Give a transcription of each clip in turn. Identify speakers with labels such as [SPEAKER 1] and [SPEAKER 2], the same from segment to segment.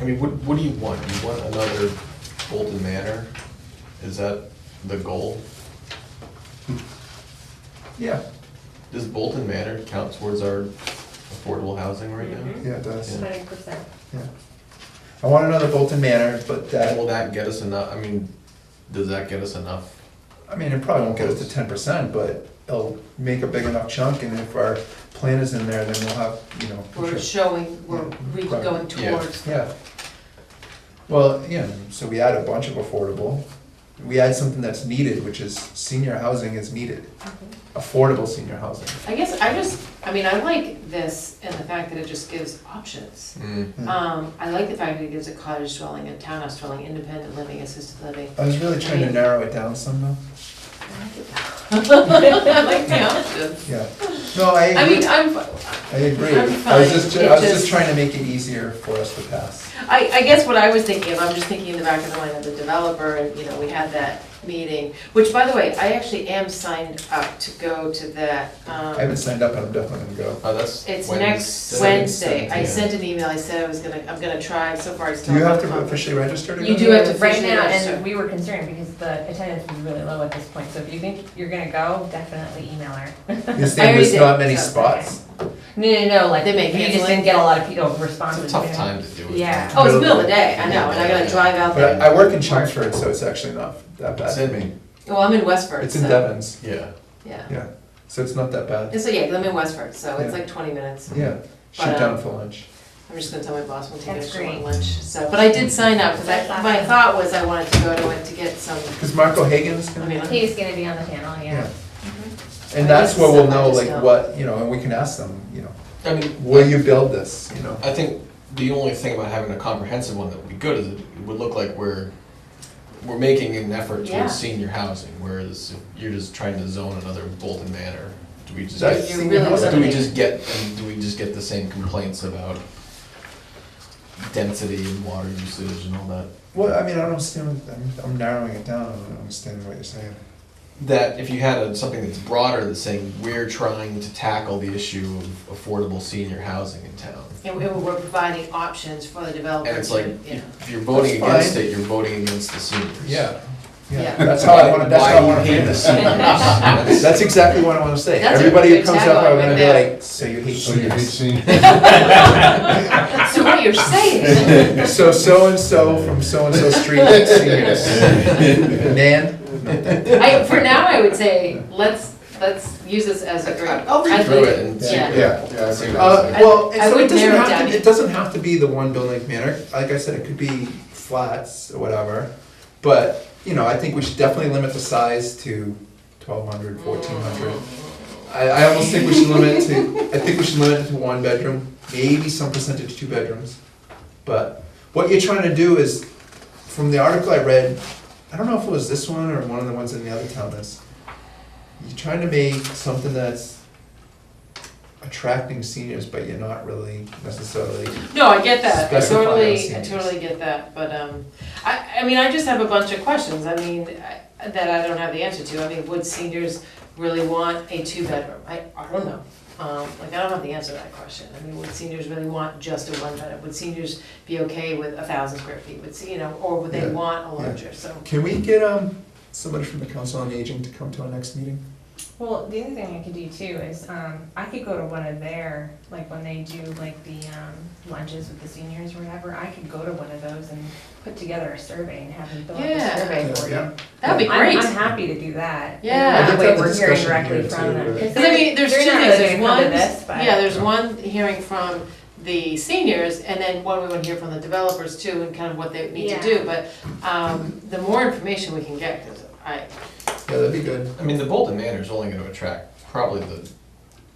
[SPEAKER 1] I mean, what, what do you want? Do you want another Bolton Manor? Is that the goal?
[SPEAKER 2] Yeah,
[SPEAKER 1] Does Bolton Manor count towards our affordable housing right
[SPEAKER 3] Mm-hmm.
[SPEAKER 1] now?
[SPEAKER 2] yeah, it does,
[SPEAKER 1] Yeah.
[SPEAKER 3] Hundred percent.
[SPEAKER 2] yeah. I want another Bolton Manor, but
[SPEAKER 1] And
[SPEAKER 2] that,
[SPEAKER 1] Will that get us enough, I mean, does that get us enough?
[SPEAKER 2] I mean, it probably won't get us to ten percent, but it'll make a big enough chunk, and if our plan is in there, then we'll have, you know.
[SPEAKER 3] We're
[SPEAKER 2] sure.
[SPEAKER 3] showing, we're re-
[SPEAKER 2] Right.
[SPEAKER 3] going
[SPEAKER 1] Yeah.
[SPEAKER 3] towards.
[SPEAKER 2] Yeah. Well, yeah, so we add a bunch of affordable, we add something that's needed, which is senior housing is needed,
[SPEAKER 3] Mhm.
[SPEAKER 2] affordable senior housing.
[SPEAKER 3] I guess I just, I mean, I like this and the fact that it just gives options.
[SPEAKER 1] Mm,
[SPEAKER 2] Mm.
[SPEAKER 3] Um, I like the fact that it gives a cottage dwelling, a townhouse dwelling, independent living, assisted living.
[SPEAKER 2] I was really trying to narrow it down some though,
[SPEAKER 3] I like it. I like the options.
[SPEAKER 2] yeah. No, I
[SPEAKER 3] I mean,
[SPEAKER 2] agree,
[SPEAKER 3] I'm, fi-
[SPEAKER 2] I agree,
[SPEAKER 3] I'm
[SPEAKER 2] I was just,
[SPEAKER 3] fine.
[SPEAKER 2] I was
[SPEAKER 3] It
[SPEAKER 2] just
[SPEAKER 3] just-
[SPEAKER 2] trying to make it easier for us to pass.
[SPEAKER 3] I, I guess what I was thinking of, I'm just thinking in the back of the mind of the developer, and, you know, we had that meeting, which, by the way, I actually am signed up to go to that, um.
[SPEAKER 2] I haven't signed up, and I'm definitely gonna go.
[SPEAKER 1] Oh, that's.
[SPEAKER 3] It's next Wednesday. I sent an email, I said I was gonna, I'm gonna try, so far I still
[SPEAKER 2] Do you have to
[SPEAKER 3] come.
[SPEAKER 2] officially register to go?
[SPEAKER 3] You do
[SPEAKER 2] there?
[SPEAKER 3] have to
[SPEAKER 4] Right
[SPEAKER 3] officially
[SPEAKER 4] now,
[SPEAKER 3] register.
[SPEAKER 4] and we were concerned because the attendance was really low at this point, so if you think you're gonna go, definitely email her.
[SPEAKER 2] You're
[SPEAKER 3] I
[SPEAKER 2] saying
[SPEAKER 3] already
[SPEAKER 2] there's not
[SPEAKER 3] did,
[SPEAKER 2] many
[SPEAKER 3] so-
[SPEAKER 2] spots?
[SPEAKER 4] No, no, no, like,
[SPEAKER 3] They may
[SPEAKER 4] you
[SPEAKER 3] cancel
[SPEAKER 4] just
[SPEAKER 3] it.
[SPEAKER 4] didn't get a lot of people responses.
[SPEAKER 1] It's a tough
[SPEAKER 4] you know?
[SPEAKER 1] time to do it.
[SPEAKER 4] Yeah.
[SPEAKER 3] Oh, it's middle of the day, I know, and I gotta drive out
[SPEAKER 2] But
[SPEAKER 3] there.
[SPEAKER 2] I I work in Chelmsford, so it's actually not that bad.
[SPEAKER 1] Send me,
[SPEAKER 3] Well, I'm in Westford,
[SPEAKER 2] It's in
[SPEAKER 3] so,
[SPEAKER 2] Devon's,
[SPEAKER 1] yeah.
[SPEAKER 3] yeah.
[SPEAKER 2] yeah, so it's not that bad.
[SPEAKER 3] And so, yeah, 'cause I'm in Westford, so it's
[SPEAKER 2] Yeah.
[SPEAKER 3] like twenty minutes.
[SPEAKER 2] Yeah,
[SPEAKER 3] But, uh,
[SPEAKER 2] shoot down for lunch.
[SPEAKER 3] I'm just gonna tell my boss we'll take
[SPEAKER 4] That's
[SPEAKER 3] extra
[SPEAKER 4] great.
[SPEAKER 3] lunch, so, but I did sign up, cause I,
[SPEAKER 4] That's
[SPEAKER 3] my
[SPEAKER 4] awesome.
[SPEAKER 3] thought was I wanted to go to it to get some,
[SPEAKER 2] Because Marco Hagen's
[SPEAKER 3] I
[SPEAKER 2] gonna,
[SPEAKER 3] mean, Mm-hmm. I'm-
[SPEAKER 4] He's gonna be on the panel,
[SPEAKER 2] yeah.
[SPEAKER 4] yeah.
[SPEAKER 2] And that's where
[SPEAKER 3] I
[SPEAKER 2] we'll know
[SPEAKER 3] just
[SPEAKER 2] like
[SPEAKER 3] know.
[SPEAKER 2] what, you know, and we can ask them, you know,
[SPEAKER 1] I mean.
[SPEAKER 2] will you build this, you know?
[SPEAKER 1] I think the only thing about having a comprehensive one that would be good is it would look like we're, we're making an effort
[SPEAKER 3] Yeah.
[SPEAKER 1] towards senior housing, whereas if you're just trying to zone another Bolton Manor, do we just
[SPEAKER 2] That's
[SPEAKER 1] get,
[SPEAKER 3] You're
[SPEAKER 2] senior
[SPEAKER 3] really
[SPEAKER 1] do
[SPEAKER 2] housing.
[SPEAKER 1] we just get, and do we just get the same complaints about density and water usage and all that?
[SPEAKER 2] Well, I mean, I don't understand, I'm, I'm narrowing it down, I don't understand what you're saying.
[SPEAKER 1] That if you had a- something that's broader that's saying, we're trying to tackle the issue of affordable senior housing in town.
[SPEAKER 3] and we- we're providing options for the developer.
[SPEAKER 1] And it's like,
[SPEAKER 3] to- yeah.
[SPEAKER 1] if you're voting
[SPEAKER 2] That's
[SPEAKER 1] against
[SPEAKER 2] fine.
[SPEAKER 1] it, you're voting against the seniors.
[SPEAKER 2] Yeah,
[SPEAKER 3] Yeah.
[SPEAKER 2] that's how I wanna, that's how I wanna
[SPEAKER 1] Why you
[SPEAKER 2] frame
[SPEAKER 1] hate the
[SPEAKER 2] this.
[SPEAKER 1] seniors?
[SPEAKER 2] That's exactly what I wanna say.
[SPEAKER 3] That's a
[SPEAKER 2] Everybody who
[SPEAKER 3] good
[SPEAKER 2] comes up, I'm
[SPEAKER 3] tagline
[SPEAKER 2] gonna
[SPEAKER 3] right
[SPEAKER 2] be
[SPEAKER 3] there.
[SPEAKER 2] like, so you hate
[SPEAKER 5] So Oh, you hate
[SPEAKER 2] seniors.
[SPEAKER 5] seniors?
[SPEAKER 3] So what you're saying,
[SPEAKER 2] So so-and-so from so-and-so street hates seniors. Nan?
[SPEAKER 3] I, for now, I would say, let's, let's use this as a great.
[SPEAKER 1] I'll read
[SPEAKER 3] I
[SPEAKER 1] through
[SPEAKER 3] think-
[SPEAKER 1] it and see.
[SPEAKER 3] Yeah.
[SPEAKER 2] Yeah.
[SPEAKER 5] Yeah, I think
[SPEAKER 2] Uh,
[SPEAKER 5] that's-
[SPEAKER 3] I-
[SPEAKER 2] well,
[SPEAKER 3] I
[SPEAKER 2] and so
[SPEAKER 3] would
[SPEAKER 2] it doesn't
[SPEAKER 3] narrow it
[SPEAKER 2] have
[SPEAKER 3] down.
[SPEAKER 2] to, it doesn't have to be the one building manner, like I said, it could be flats or whatever. But, you know, I think we should definitely limit the size to 1,200, 1,400. I, I almost think we should limit it to, I think we should limit it to one bedroom, maybe some percentage two bedrooms. But what you're trying to do is, from the article I read, I don't know if it was this one or one of the ones in the other town, is you're trying to make something that's attracting seniors, but you're not really necessarily,
[SPEAKER 3] No, I get that, I
[SPEAKER 2] Specify
[SPEAKER 3] totally, I
[SPEAKER 2] LCDs.
[SPEAKER 3] totally get that, but, um, I, I mean, I just have a bunch of questions, I mean, I- that I don't have the answer to, I mean, would seniors really want a two-bedroom? I, I don't know, um, like, I don't have the answer to that question, I mean, would seniors really want just a one-bedroom? Would seniors be okay with a thousand square feet, would, se- you know, or would they
[SPEAKER 2] Yeah,
[SPEAKER 3] want a
[SPEAKER 2] yeah.
[SPEAKER 3] larger, so,
[SPEAKER 2] can we get, um, somebody from the council on aging to come to our next meeting?
[SPEAKER 4] Well, the other thing I could do too is, um, I could go to one of their, like, when they do like the, um, lunches with the seniors or whatever, I could go to one of those and put together a survey and have them fill out the
[SPEAKER 3] Yeah.
[SPEAKER 4] survey for
[SPEAKER 2] Yeah.
[SPEAKER 4] you.
[SPEAKER 3] that'd be
[SPEAKER 4] I'm-
[SPEAKER 3] great.
[SPEAKER 4] I'm happy to do that.
[SPEAKER 3] Yeah. I
[SPEAKER 4] That
[SPEAKER 2] think
[SPEAKER 4] way
[SPEAKER 2] that's a
[SPEAKER 4] we're hearing
[SPEAKER 2] discussion
[SPEAKER 4] directly
[SPEAKER 2] here,
[SPEAKER 4] from
[SPEAKER 2] too,
[SPEAKER 4] them.
[SPEAKER 2] but-
[SPEAKER 4] 'Cause
[SPEAKER 3] Because I
[SPEAKER 4] they're-
[SPEAKER 3] mean, there's two
[SPEAKER 4] they're not
[SPEAKER 3] things,
[SPEAKER 4] really
[SPEAKER 3] there's
[SPEAKER 4] gonna come
[SPEAKER 3] one,
[SPEAKER 4] to this, but-
[SPEAKER 3] yeah, there's one hearing from the seniors, and then one we want to hear from the developers too, and kind of what they need to
[SPEAKER 4] Yeah.
[SPEAKER 3] do, but, um, the more information we can get, because I,
[SPEAKER 2] Yeah, that'd be good.
[SPEAKER 1] I mean, the Bolton Manor is only gonna attract probably the,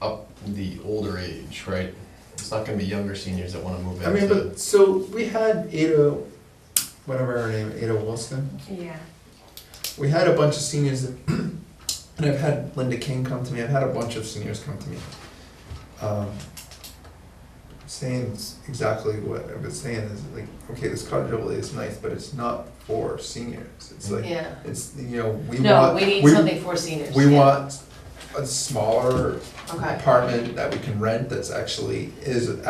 [SPEAKER 1] up, the older age, right? It's not gonna be younger seniors that wanna move
[SPEAKER 2] I mean,
[SPEAKER 1] into,
[SPEAKER 2] but, so, we had Ada, whatever her name, Ada Wilson,
[SPEAKER 4] Yeah.
[SPEAKER 2] we had a bunch of seniors that, and I've had Linda King come to me, I've had a bunch of seniors come to me. um, Saying s- exactly what I've been saying is like, okay, this cottage overlay is nice, but it's not for seniors, it's like,
[SPEAKER 3] yeah.
[SPEAKER 2] it's, you know, we want.
[SPEAKER 3] No, we need something for seniors.
[SPEAKER 2] We
[SPEAKER 3] yeah.
[SPEAKER 2] want a smaller
[SPEAKER 3] Okay.
[SPEAKER 2] apartment that we can rent that's actually, is